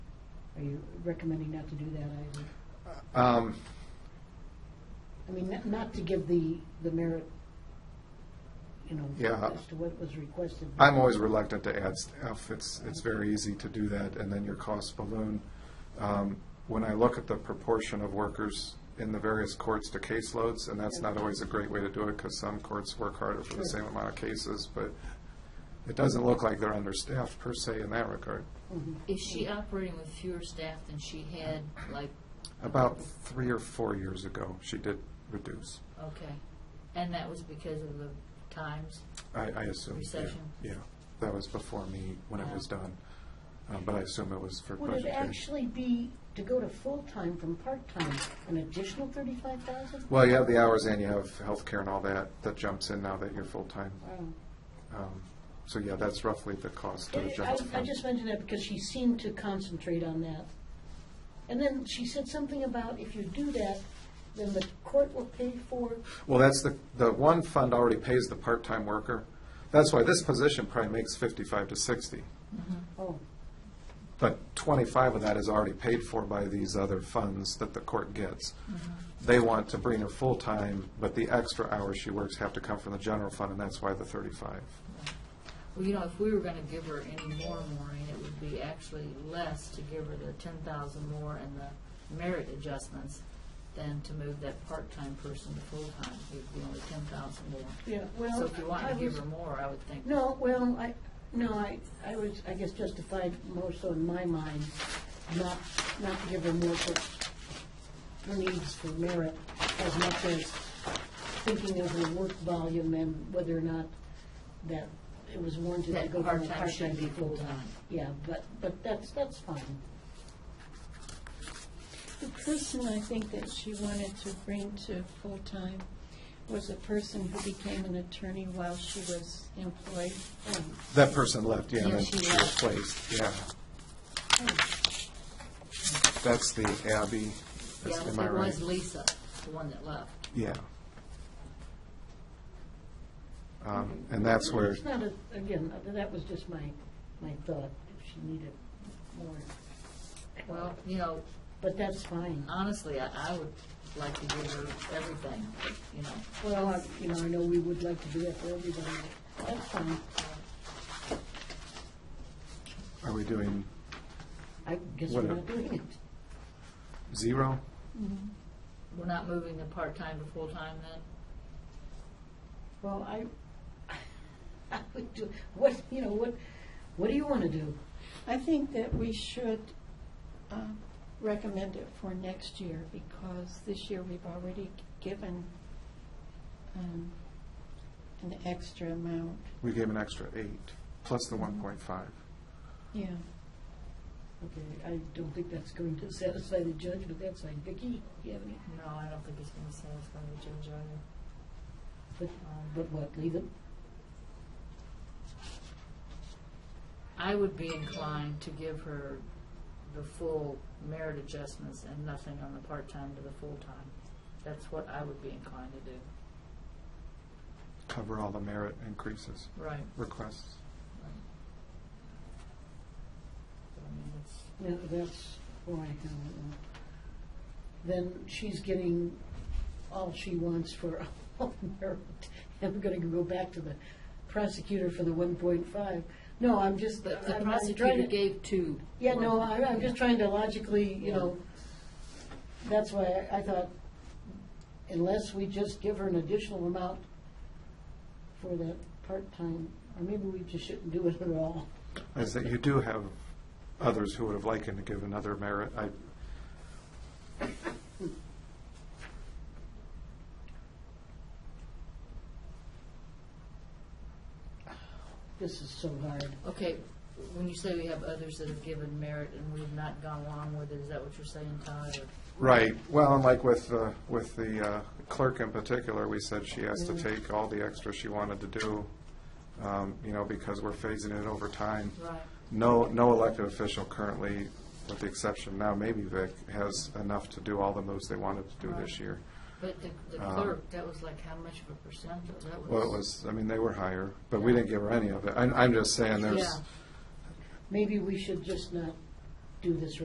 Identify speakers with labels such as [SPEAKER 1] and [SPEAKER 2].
[SPEAKER 1] Are you recommending not to do that either?
[SPEAKER 2] Um,
[SPEAKER 1] I mean, not- not to give the, the merit, you know,
[SPEAKER 2] Yeah.
[SPEAKER 1] as to what was requested.
[SPEAKER 2] I'm always reluctant to add staff. It's, it's very easy to do that, and then your costs balloon. Um, When I look at the proportion of workers in the various courts to caseloads, and that's not always a great way to do it, because some courts work harder for the same amount of cases, but it doesn't look like they're understaffed per se in that regard.
[SPEAKER 3] Is she operating with fewer staff than she had, like,
[SPEAKER 2] About three or four years ago, she did reduce,
[SPEAKER 3] okay, and that was because of the times?
[SPEAKER 2] I, I assume. yeah,
[SPEAKER 3] Recession.
[SPEAKER 2] Yeah, that was before me, when it was done, Uh, but I assume it was for
[SPEAKER 1] Would it
[SPEAKER 2] budgetary.
[SPEAKER 1] actually be to go to full-time from part-time, an additional thirty-five thousand?
[SPEAKER 2] Well, you have the hours and you have healthcare and all that, that jumps in now that you're full-time. Um, So, yeah, that's roughly the cost of the
[SPEAKER 1] I,
[SPEAKER 2] general
[SPEAKER 1] I
[SPEAKER 2] fund.
[SPEAKER 1] just mentioned that because she seemed to concentrate on that. And then she said something about if you do that, then the court will pay for,
[SPEAKER 2] Well, that's the, the one fund already pays the part-time worker. That's why this position probably makes fifty-five to sixty.
[SPEAKER 1] oh,
[SPEAKER 2] But twenty-five of that is already paid for by these other funds that the court gets.
[SPEAKER 1] Mm-hmm.
[SPEAKER 2] They want to bring her full-time, but the extra hours she works have to come from the general fund, and that's why the thirty-five.
[SPEAKER 3] Well, you know, if we were gonna give her any more, Maureen, it would be actually less to give her the ten thousand more and the merit adjustments than to move that part-time person to full-time, it would be only ten thousand more.
[SPEAKER 1] yeah, well.
[SPEAKER 3] So if you want
[SPEAKER 1] I
[SPEAKER 3] to give
[SPEAKER 1] was-
[SPEAKER 3] her more, I would think.
[SPEAKER 1] No, well, I, no, I, I was, I guess justified more so in my mind, not, not to give her more for, her needs for merit as much as thinking of her work volume and whether or not that it was warranted to
[SPEAKER 3] That
[SPEAKER 1] go from a
[SPEAKER 3] part-time should
[SPEAKER 1] part-time to
[SPEAKER 3] be
[SPEAKER 1] full-time.
[SPEAKER 3] full-time.
[SPEAKER 1] Yeah, but, but that's, that's fine.
[SPEAKER 4] The person I think that she wanted to bring to full-time was a person who became an attorney while she was employed. Um,
[SPEAKER 2] That person left, yeah, and
[SPEAKER 4] Yeah,
[SPEAKER 2] then
[SPEAKER 4] she
[SPEAKER 2] she
[SPEAKER 4] left.
[SPEAKER 2] replaced, yeah. That's the Abby,
[SPEAKER 3] Yeah,
[SPEAKER 2] That's- am I
[SPEAKER 3] it
[SPEAKER 2] right?
[SPEAKER 3] was Lisa, the one that left.
[SPEAKER 2] Yeah. Um, And that's where,
[SPEAKER 1] It's not a, again, that was just my, my thought, if she needed more,
[SPEAKER 3] Well, you know,
[SPEAKER 1] but that's fine.
[SPEAKER 3] honestly, I, I would like to give her everything, you know.
[SPEAKER 1] Well, I- you know, I know we would like to do that for everybody. That's fine.
[SPEAKER 2] are we doing
[SPEAKER 1] I guess we're
[SPEAKER 2] Whatever.
[SPEAKER 1] not doing it.
[SPEAKER 2] zero?
[SPEAKER 4] Um,
[SPEAKER 3] We're not moving the part-time to full-time then?
[SPEAKER 1] Well, I, I would do, what, you know, what, what do you want to do?
[SPEAKER 4] I think that we should um, recommend it for next year because this year we've already given um, an extra amount.
[SPEAKER 2] We gave an extra eight, plus the one point five.
[SPEAKER 4] Yeah,
[SPEAKER 1] Okay, I don't think that's going to satisfy the judge, but that's fine. Vicki, you have any?
[SPEAKER 3] No, I don't think it's gonna satisfy the judge either.
[SPEAKER 1] But,
[SPEAKER 3] Um,
[SPEAKER 1] but what, leave it?
[SPEAKER 3] I would be inclined to give her the full merit adjustments and nothing on the part-time to the full-time. That's what I would be inclined to do.
[SPEAKER 2] Cover all the merit increases,
[SPEAKER 3] Right.
[SPEAKER 2] requests.
[SPEAKER 3] I mean, it's,
[SPEAKER 1] No, that's why, I don't know. Then she's getting all she wants for all merit. And we're gonna go back to the prosecutor for the one point five. No, I'm just,
[SPEAKER 3] but
[SPEAKER 1] I'm-
[SPEAKER 3] the
[SPEAKER 1] I'm
[SPEAKER 3] prosecutor
[SPEAKER 1] trying to-
[SPEAKER 3] gave two.
[SPEAKER 1] Yeah, no, I- I'm just trying to logically, you
[SPEAKER 3] Yeah.
[SPEAKER 1] know, that's why I I thought, unless we just give her an additional amount for that part-time, or maybe we just shouldn't do it at all.
[SPEAKER 2] Is that you do have others who would have liked to give another merit. I,
[SPEAKER 1] This is so hard.
[SPEAKER 3] Okay, when you say we have others that have given merit and we've not gone along with it, is that what you're saying, Todd? or-
[SPEAKER 2] Right, well, and like with, uh, with the uh, clerk in particular, we said she has to
[SPEAKER 3] Mm.
[SPEAKER 2] take all the extra she wanted to do, um, you know, because we're phasing it over time.
[SPEAKER 3] Right.
[SPEAKER 2] No, no elected official currently, with the exception now, maybe Vic, has enough to do all the moves they wanted to do this
[SPEAKER 3] Right.
[SPEAKER 2] year.
[SPEAKER 3] But the the
[SPEAKER 2] Um,
[SPEAKER 3] clerk, that was like how much of a percent? That was.
[SPEAKER 2] Well, it was, I mean, they were higher, but we didn't give her any of it. I'm, I'm just saying, there's,
[SPEAKER 3] Yeah.
[SPEAKER 1] Maybe we should just not do this